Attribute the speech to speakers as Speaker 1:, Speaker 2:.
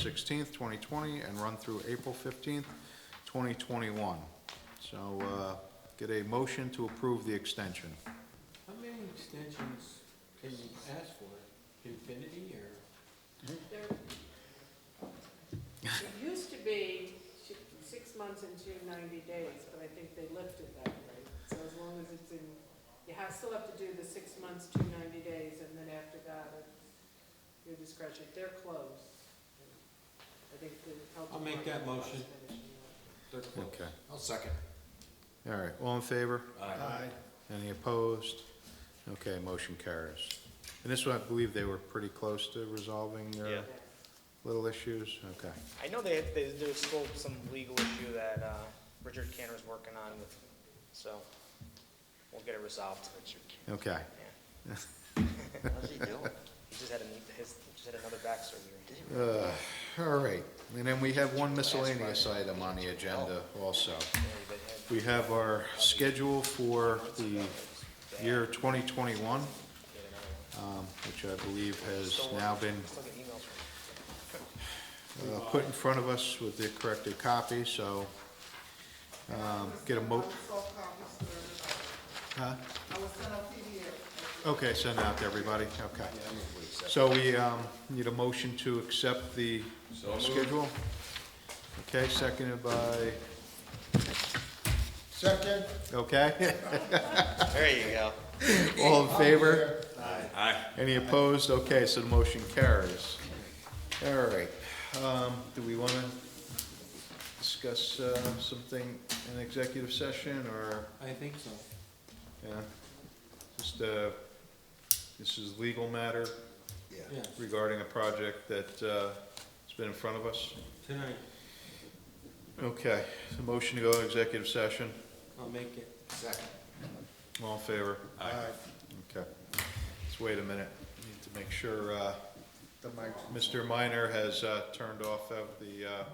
Speaker 1: sixteenth, twenty twenty, and run through April fifteenth, twenty twenty-one. So, uh, get a motion to approve the extension.
Speaker 2: How many extensions can you ask for? Infinity or?
Speaker 3: There, it used to be sh- six months and two ninety days, but I think they lifted that rate. So as long as it's in, you have, still have to do the six months, two ninety days, and then after that, it's your discretion. They're closed. I think the health.
Speaker 2: I'll make that
Speaker 3: department
Speaker 2: motion.
Speaker 3: finishing up.
Speaker 1: Okay.
Speaker 2: I'll second.
Speaker 1: All right, all in favor?
Speaker 2: Aye.
Speaker 1: Any opposed? Okay, motion carries. And this one, I believe they were pretty close to resolving
Speaker 4: Yeah.
Speaker 1: their little issues, okay.
Speaker 4: I know they, they, there's still some legal issue that, uh, Richard Cantor's working on with, so we'll get it resolved. Richard
Speaker 1: Okay,
Speaker 5: How's he doing?
Speaker 4: He just had a, knee- his, he just had another back surgery.
Speaker 1: uh, all right, and then we have one miscellaneous item on the agenda also.
Speaker 4: Yeah, he did have-
Speaker 1: We have our schedule for the year twenty twenty-one,
Speaker 4: he had another one.
Speaker 1: um, which I believe has
Speaker 4: Still
Speaker 1: now
Speaker 4: working.
Speaker 1: been
Speaker 4: Still getting emails from him.
Speaker 1: uh, put in front of us with the corrected copy, so, um, get a mo- Huh? Okay, send out to everybody, okay. So we, um, need a motion to accept the schedule? Okay, seconded by,
Speaker 6: Second,
Speaker 1: okay,
Speaker 5: There you go.
Speaker 1: all in favor?
Speaker 5: Aye.
Speaker 1: Any opposed? Okay, so the motion carries. All right, um, do we wanna discuss, uh, something in executive session, or,
Speaker 2: I think so.
Speaker 1: yeah? Just, uh, this is legal matter
Speaker 2: Yeah,
Speaker 1: regarding a project that, uh, has been in front of us?
Speaker 2: tonight.
Speaker 1: Okay, so motion to go to executive session,
Speaker 2: I'll make it.
Speaker 6: Second.
Speaker 1: all in favor?
Speaker 6: Aye.
Speaker 1: Okay, let's wait a minute, need to make sure, uh,
Speaker 6: The mic's
Speaker 1: Mr. Minor has uh, turned off of the uh,